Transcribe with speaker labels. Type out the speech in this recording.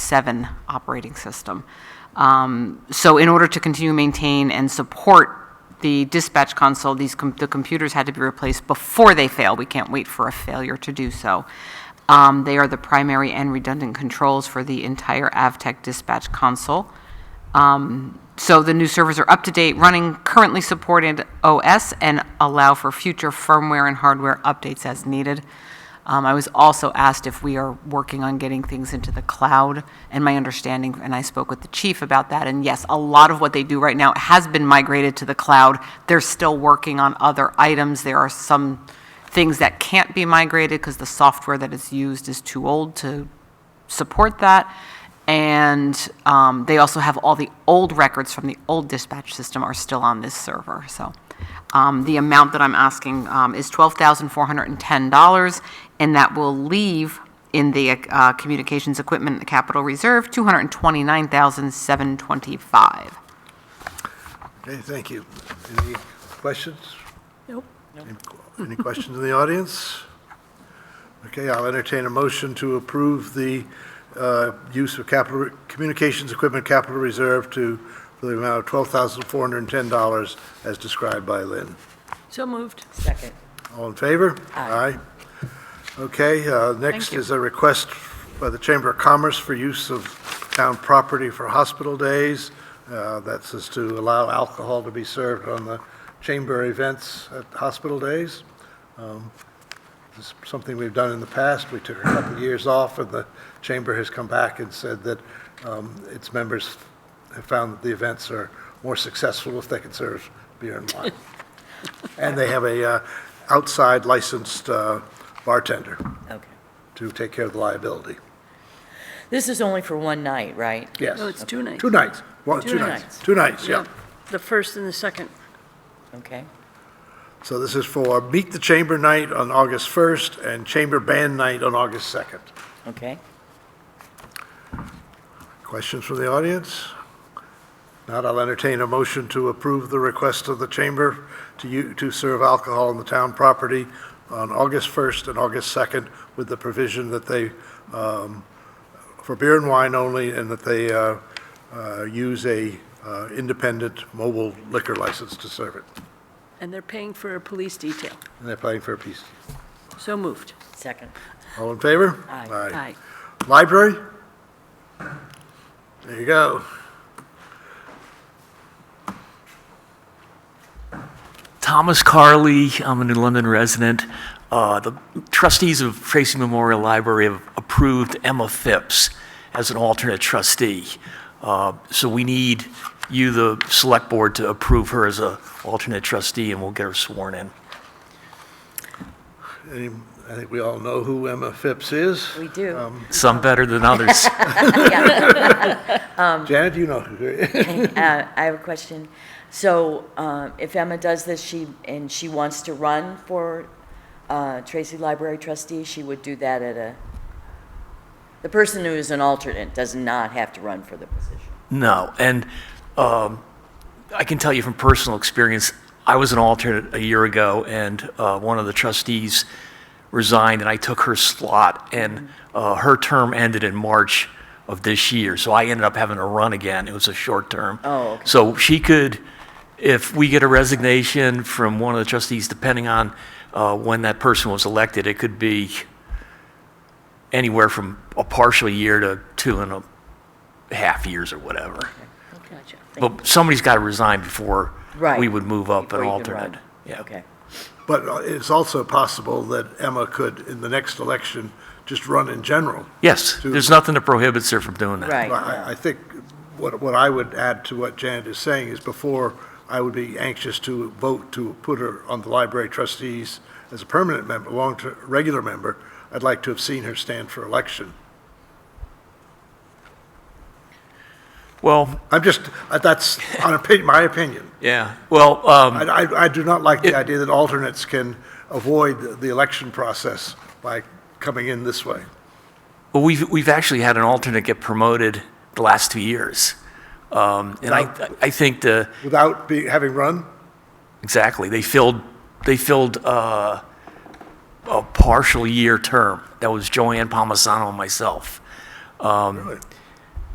Speaker 1: 7 operating system. Um, So in order to continue to maintain and support the dispatch console, these, com- the computers had to be replaced before they fail. We can't wait for a failure to do so. Um, They are the primary and redundant controls for the entire AvTech dispatch console. Um, So the new servers are up to date, running currently supported OS, and allow for future firmware and hardware updates as needed. Um, I was also asked if we are working on getting things into the cloud, and my understanding, and I spoke with the chief about that, and yes, a lot of what they do right now has been migrated to the cloud. They're still working on other items. There are some things that can't be migrated because the software that is used is too old to support that. And um, they also have all the old records from the old dispatch system are still on this server. So um, the amount that I'm asking um, is $12,410, and that will leave in the uh, communications equipment and capital reserve $229,725.
Speaker 2: Okay, thank you. Any questions?
Speaker 3: Nope.
Speaker 2: Any- Any questions in the audience? Okay, I'll entertain a motion to approve the uh, use of capital, communications equipment capital reserve to, for the amount of $12,410 as described by Lynn.
Speaker 3: So moved.
Speaker 4: Second.
Speaker 2: All in favor? Aye. Okay, uh, next
Speaker 1: Thank you.
Speaker 2: is a request by the Chamber of Commerce for use of town property for hospital days. Uh, That's is to allow alcohol to be served on the chamber events at hospital days. Um, This is something we've done in the past. We took a couple of years off, and the chamber has come back and said that um, its members have found that the events are more successful if they can serve beer and wine. And they have a uh, outside licensed uh, bartender
Speaker 4: Okay.
Speaker 2: to take care of the liability.
Speaker 4: This is only for one night, right?
Speaker 2: Yes.
Speaker 3: No, Oh, it's two nights.
Speaker 2: Two nights. One, two
Speaker 4: Two
Speaker 2: nights.
Speaker 4: nights.
Speaker 2: Two nights, yeah.
Speaker 3: The first and the second.
Speaker 4: Okay.
Speaker 2: So this is for Meet the Chamber Night on August 1st and Chamber Band Night on August 2nd.
Speaker 4: Okay.
Speaker 2: Questions from the audience? Not, I'll entertain a motion to approve the request of the chamber to you, to serve alcohol on the town property on August 1st and August 2nd with the provision that they, um, for beer and wine only, and that they uh, uh, use a uh, independent mobile liquor license to serve it.
Speaker 3: And they're paying for a police detail.
Speaker 2: And they're playing for a piece.
Speaker 3: So moved.
Speaker 4: Second.
Speaker 2: All in favor?
Speaker 4: Aye.
Speaker 3: Aye.
Speaker 2: Library? There you go.
Speaker 5: Thomas Carley, I'm a New London resident. Uh, The trustees of Tracy Memorial Library have approved Emma Phipps as an alternate trustee. Uh, So we need you, the select board, to approve her as an alternate trustee, and we'll get her sworn in.
Speaker 2: Any- I think we all know who Emma Phipps is.
Speaker 4: We do.
Speaker 5: Some better than others.
Speaker 2: Janet, you know who
Speaker 4: Uh, I have a question. So um, if Emma does this, she, and she wants to run for uh, Tracy Library trustee, she would do that at a, the person who is an alternate does not have to run for the position.
Speaker 5: No, and um, I can tell you from personal experience, I was an alternate a year ago, and uh, one of the trustees resigned, and I took her slot, and uh, her term ended in March of this year, so I ended up having to run again. It was a short term.
Speaker 4: Oh, okay.
Speaker 5: So she could, if we get a resignation from one of the trustees, depending on uh, when that person was elected, it could be anywhere from a partial year to two and a half years or whatever.
Speaker 3: Gotcha.
Speaker 5: But somebody's got to resign before
Speaker 4: Right.
Speaker 5: we would move up an
Speaker 4: Before you can run.
Speaker 5: alternate. Yeah.
Speaker 4: Okay.
Speaker 2: But uh, it's also possible that Emma could, in the next election, just run in general.
Speaker 5: Yes, there's nothing that prohibits her from doing that.
Speaker 4: Right.
Speaker 2: I, I think what, what I would add to what Janet is saying is before, I would be anxious to vote to put her on the library trustees as a permanent member, long-term, regular member. I'd like to have seen her stand for election.
Speaker 5: Well,
Speaker 2: I'm just, uh, that's an opinion, my opinion.
Speaker 5: yeah, well, um,
Speaker 2: I, I, I do not like the idea that alternates can avoid the- the election process by coming in this way.
Speaker 5: well, we've, we've actually had an alternate get promoted the last two years. Um, And I, I think the,
Speaker 2: Without be, having run,
Speaker 5: exactly, they filled, they filled uh, a partial year term. That was Joanne Palmisano and myself.
Speaker 2: really.